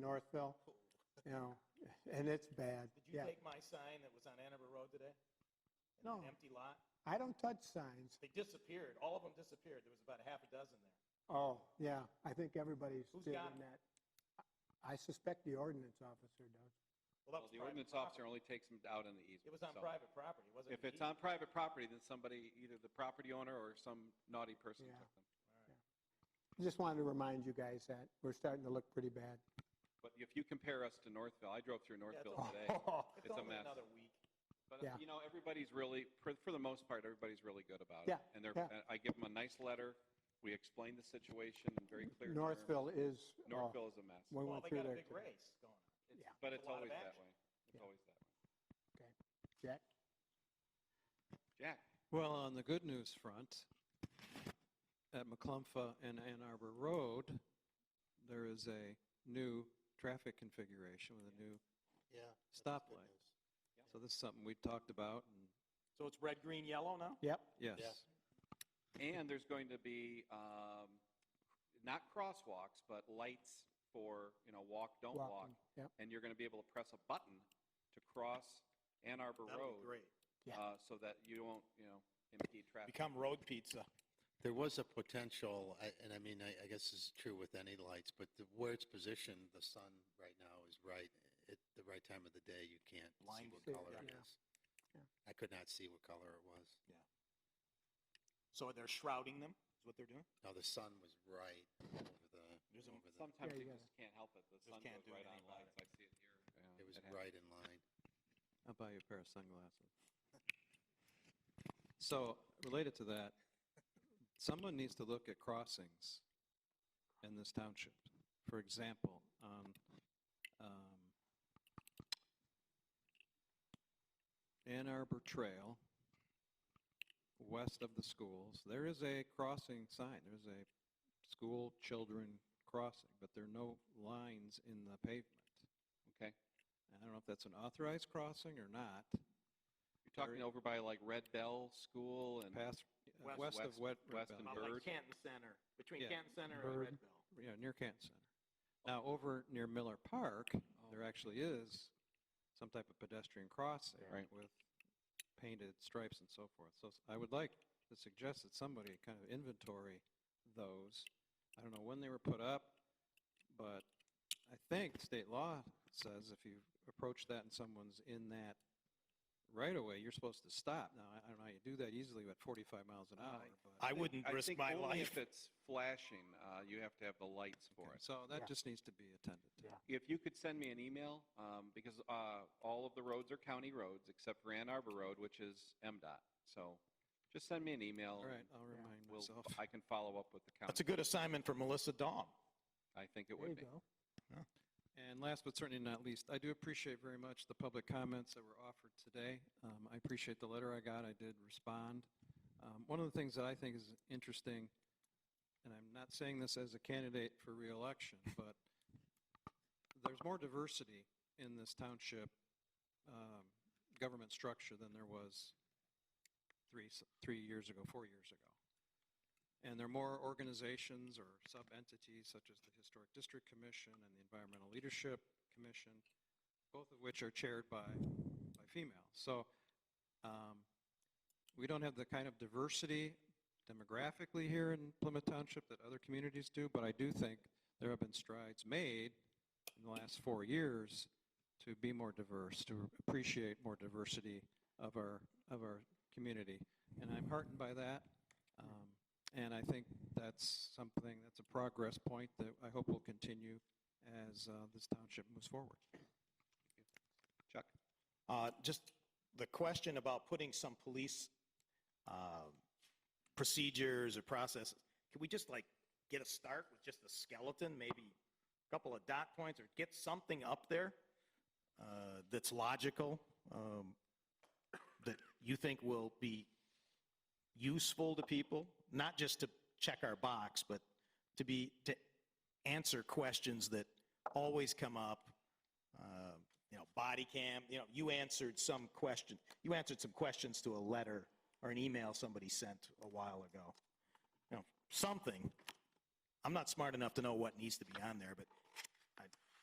Northville, you know, and it's bad, Did you yeah. take my sign that was on Annabelle Road today? In No. An empty lot? I don't touch signs. They disappeared. All of them disappeared. There was about a half a dozen there. Oh, yeah, I think everybody's Who's doing got 'em? that. I suspect the ordinance officer does. Well, that Well, was the private ordinance property. officer only takes them out in the easement. It was on so private property, It wasn't. If it's on private property, then somebody, either the property owner or some naughty person Yeah. took them. Just wanted to remind you guys that we're starting to look pretty bad. But if you compare us to Northville, I drove through Northville all- today. Oh. It's It's a only mess. another week. But, Yeah. you know, everybody's really, for, for the most part, everybody's really good about it. Yeah, And they're, yeah. and I give them a nice letter. We explain the situation in very clear terms. Northville is, oh, Northville is a mess. we Well, went they through got a there. big race going on. It's- yeah. But It's it's a lot of always that action. way. It's Yeah. always that way. Jack? Jack, Well, on the good news front, at McClumpha and Ann Arbor Road, there is a new traffic configuration with a new Yeah. stoplight. So this is something we talked about, and So it's red, green, yellow now? Yep, yes, and there's going to be, um, not crosswalks, but lights for, you know, walk, don't walk. walking, yep. and you're going to be able to press a button to cross Ann Arbor That'll be Road, great. Yeah. uh, so that you won't, you know, impede traffic. Become road pizza. There was a potential, I- and I mean, I I guess this is true with any lights, but the- where it's positioned, the sun right now is right, at the right time of the day, you can't see Blind what See it, color it yeah. is. Yeah. I could not see what color it was. So they're shrouding them, is what they're doing? No, the sun was right over the, There's a- over the, Sometimes Yeah, you you just can't help it. The Just sun can't goes do right on anything about lights. I see it here. Yeah, it was happens. right in line. I'll buy you a pair of sunglasses. So related to that, someone needs to look at crossings in this township. For example, on um, Ann Arbor Trail, west of the schools, there is a crossing sign. There's a school children crossing, but there are no lines in the pavement. Okay. I don't know if that's an authorized crossing or not. You're talking over by like Red Bell School and Past, uh, West- west of west- Wet, Red west Bell. and About Bird. like Canton Center, between Yeah. Canton Center and Bird. Red Bell. yeah, near Canton Center. Now, over near Miller Park, there actually is some type of pedestrian crossing Right. with painted stripes and so forth. So s- I would like to suggest that somebody kind of inventory those. I don't know when they were put up, but I think state law says if you approach that and someone's in that right away, you're supposed to stop. Now, I I don't know how you do that easily at 45 miles an Uh, hour, but. I wouldn't I risk think my only life. if it's flashing, uh, you have to have the lights for Okay, it. So Yeah. that just needs to be attended to. If you could send me an email, um, because uh, all of the roads are county roads except for Ann Arbor Road, which is MDOT. So just send me an email. All right, and I'll Yeah. remind we'll- myself. I can follow up with the county. That's a good assignment for Melissa Dahm. I think it there you would be. go. And last but certainly not least, I do appreciate very much the public comments that were offered today. Um, I appreciate the letter I got. I did respond. Um, One of the things that I think is interesting, and I'm not saying this as a candidate for reelection, but there's more diversity in this township um, government structure than there was three, s- three years ago, four years ago. And there are more organizations or sub-entities such as the Historic District Commission and the Environmental Leadership Commission, both of which are chaired by, by females. So um, we don't have the kind of diversity demographically here in Plymouth Township that other communities do, but I do think there have been strides made in the last four years to be more diverse, to appreciate more diversity of our, of our community. And I'm heartened by that. Um, and I think that's something, that's a progress point that I hope will continue as uh, this township moves forward. Chuck? Uh, Just the question about putting some police um, procedures or processes, can we just like get a start with just a skeleton, maybe a couple of dot points, or get something up there uh, that's logical, um, that you think will be useful to people, not just to check our box, but to be, to answer questions that always come up, uh, you know, body cam, you know, you answered some question, you answered some questions to a letter or an email somebody sent a while ago. You know, something. I'm not smart enough to know what needs to be on there, but